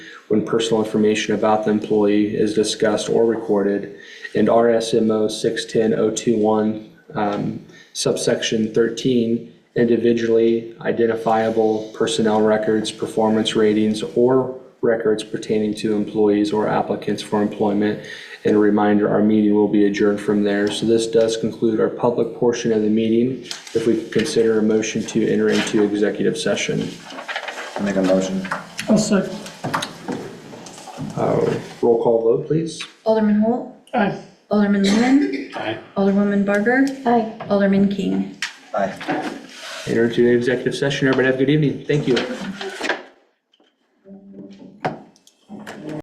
when personal information about the employee is discussed or recorded, and RSMO 610021, um, subsection 13, individually identifiable personnel records, performance ratings, or records pertaining to employees or applicants for employment. And a reminder, our meeting will be adjourned from there. So this does conclude our public portion of the meeting. If we could consider a motion to enter into executive session. Make a motion. I'll second. Uh, Roll call vote, please. Alderman Holt, Aye. Alderman Lehman. Alderwoman Barker. Aye. Alderman King. Aye. Enter into executive session. Everybody have a good evening. Thank you.